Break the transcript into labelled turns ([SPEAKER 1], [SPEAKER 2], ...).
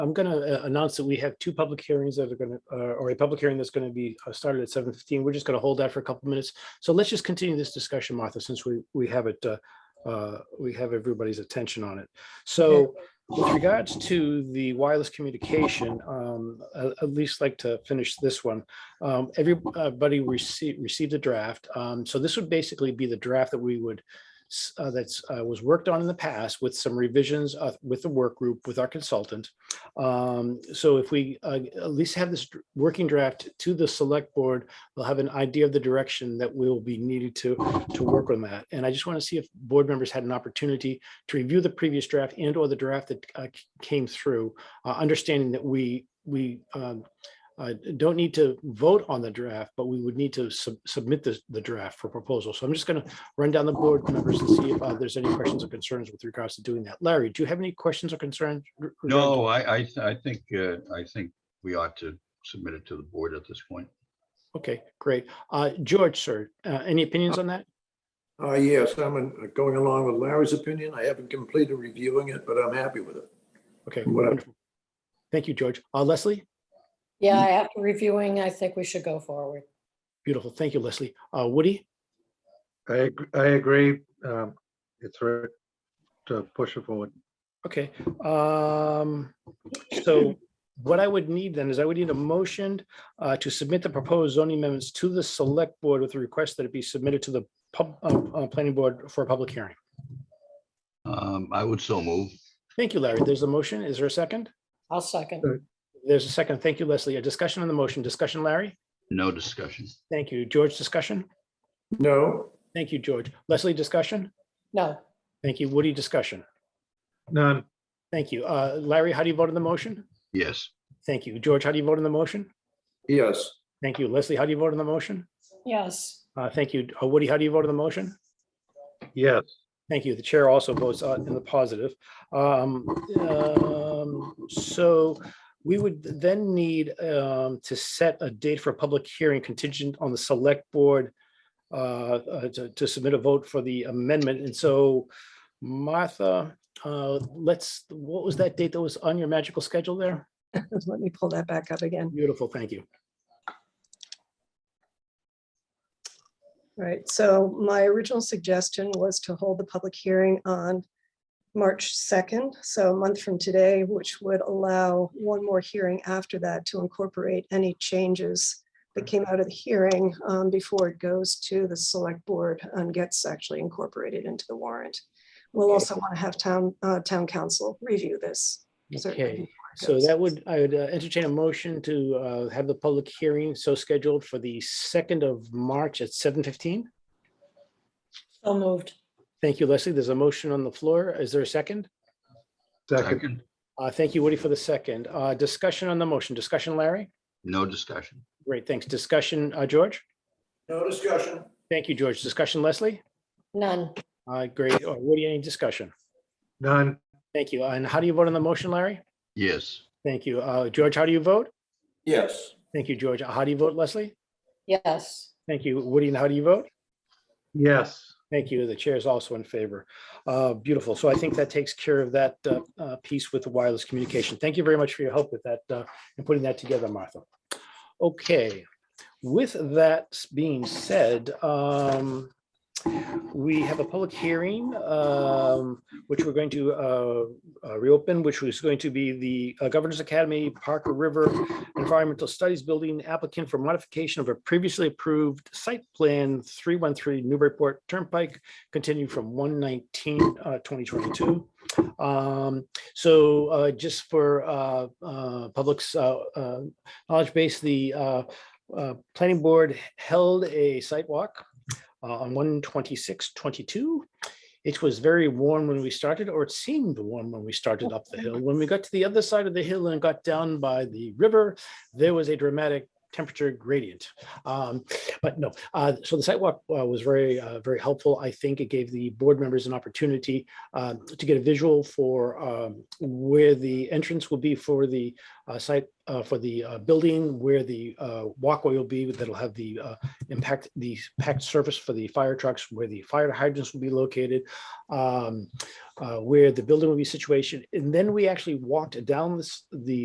[SPEAKER 1] I'm going to announce that we have two public hearings that are going to, or a public hearing that's going to be uh, started at 7:15. We're just going to hold that for a couple minutes. So let's just continue this discussion, Martha, since we, we have it, uh, uh, we have everybody's attention on it. So with regards to the wireless communication, um, I- at least like to finish this one. Um, Everybody received, received a draft. Um, So this would basically be the draft that we would s- uh, that's uh, was worked on in the past with some revisions uh, with the work group with our consultant. Um, So if we uh, at least have this dr- working draft to the select board, we'll have an idea of the direction that we will be needed to to work on that. And I just want to see if board members had an opportunity to review the previous draft and or the draft that uh, c- came through, uh, understanding that we we um, uh, don't need to vote on the draft, but we would need to sub- submit the the draft for proposal. So I'm just going to run down the board members and see if uh, there's any questions or concerns with regards to doing that. Larry, do you have any questions or concerns? r- regarding-
[SPEAKER 2] No, I, I, I think, uh, I think we ought to submit it to the board at this point.
[SPEAKER 1] Okay, great. Uh, George, sir, uh, any opinions on that?
[SPEAKER 3] Uh, yes, I'm in- going along with Larry's opinion. I haven't completed reviewing it, but I'm happy with it.
[SPEAKER 1] Okay,
[SPEAKER 3] What-
[SPEAKER 1] wonderful. Thank you, George. Uh, Leslie?
[SPEAKER 4] Yeah, after reviewing, I think we should go forward.
[SPEAKER 1] Beautiful. Thank you, Leslie. Uh, Woody?
[SPEAKER 5] I, ag- I agree. um, It's right to push it forward.
[SPEAKER 1] Okay, um, so what I would need then is I would need a motion uh, to submit the proposed zoning amendments to the select board with a request that it be submitted to the pub, uh, uh, planning board for a public hearing.
[SPEAKER 2] Um, I would so move.
[SPEAKER 1] Thank you, Larry. There's a motion. Is there a second?
[SPEAKER 4] I'll second.
[SPEAKER 1] There's a second. Thank you, Leslie. A discussion on the motion. Discussion, Larry?
[SPEAKER 2] No discussion.
[SPEAKER 1] Thank you. George, discussion?
[SPEAKER 3] No,
[SPEAKER 1] Thank you, George. Leslie, discussion?
[SPEAKER 4] No,
[SPEAKER 1] Thank you. Woody, discussion?
[SPEAKER 5] None,
[SPEAKER 1] Thank you. Uh, Larry, how do you vote on the motion?
[SPEAKER 2] Yes,
[SPEAKER 1] Thank you. George, how do you vote on the motion?
[SPEAKER 3] yes,
[SPEAKER 1] Thank you. Leslie, how do you vote on the motion?
[SPEAKER 4] yes,
[SPEAKER 1] Uh, Thank you. Uh, Woody, how do you vote on the motion?
[SPEAKER 5] yes,
[SPEAKER 1] Thank you. The chair also votes uh, in the positive. Um, um, So we would then need um, to set a date for a public hearing contingent on the select board uh, uh, to to submit a vote for the amendment. And so Martha, uh, let's, what was that date that was on your magical schedule there?
[SPEAKER 6] Let me pull that back up again.
[SPEAKER 1] Beautiful, thank you.
[SPEAKER 6] Right, so my original suggestion was to hold the public hearing on March 2nd, so a month from today, which would allow one more hearing after that to incorporate any changes that came out of the hearing um, before it goes to the select board and gets actually incorporated into the warrant. We'll also want to have town, uh, town council review this. certainly
[SPEAKER 1] Okay.
[SPEAKER 6] before it
[SPEAKER 1] So
[SPEAKER 6] goes.
[SPEAKER 1] that would, I would uh, entertain a motion to uh, have the public hearing so scheduled for the 2nd of March at 7:15.
[SPEAKER 4] so moved.
[SPEAKER 1] Thank you, Leslie. There's a motion on the floor. Is there a second?
[SPEAKER 5] second,
[SPEAKER 2] second,
[SPEAKER 1] Uh, Thank you, Woody, for the second. Uh, Discussion on the motion. Discussion, Larry?
[SPEAKER 2] no discussion.
[SPEAKER 1] Great, thanks. Discussion, uh, George?
[SPEAKER 3] no discussion.
[SPEAKER 1] Thank you, George. Discussion, Leslie?
[SPEAKER 4] None,
[SPEAKER 1] Uh, Great. Uh, Woody, any discussion?
[SPEAKER 5] none,
[SPEAKER 1] Thank you. And how do you vote on the motion, Larry?
[SPEAKER 2] Yes,
[SPEAKER 1] Thank you. Uh, George, how do you vote?
[SPEAKER 3] Yes,
[SPEAKER 1] Thank you, George. How do you vote, Leslie?
[SPEAKER 4] yes,
[SPEAKER 1] Thank you. Woody, and how do you vote?
[SPEAKER 5] yes,
[SPEAKER 1] Thank you. The chair is also in favor. Uh, Beautiful. So I think that takes care of that uh, uh, piece with the wireless communication. Thank you very much for your help with that uh, and putting that together, Martha. Okay, with that being said, um, we have a public hearing, um, which we're going to uh, uh, reopen, which was going to be the uh, Governor's Academy Parker River Environmental Studies Building applicant for modification of a previously approved site plan 313 Newburyport Turnpike, continued from 119, uh, 2022. Um, So uh, just for uh, uh, public's uh, uh, knowledge base, the uh, uh, planning board held a site walk uh, on 126, 22. It was very warm when we started, or it seemed warm when we started up the hill. When we got to the other side of the hill and got down by the river, there was a dramatic temperature gradient. Um, But no, uh, so the sidewalk uh, was very, uh, very helpful. I think it gave the board members an opportunity uh, to get a visual for um, where the entrance will be for the uh, site, uh, for the uh, building, where the uh, walkway will be, that'll have the uh, impact, the packed surface for the fire trucks, where the fire hydrants will be located, um, uh, where the building will be situated. And then we actually walked down this, the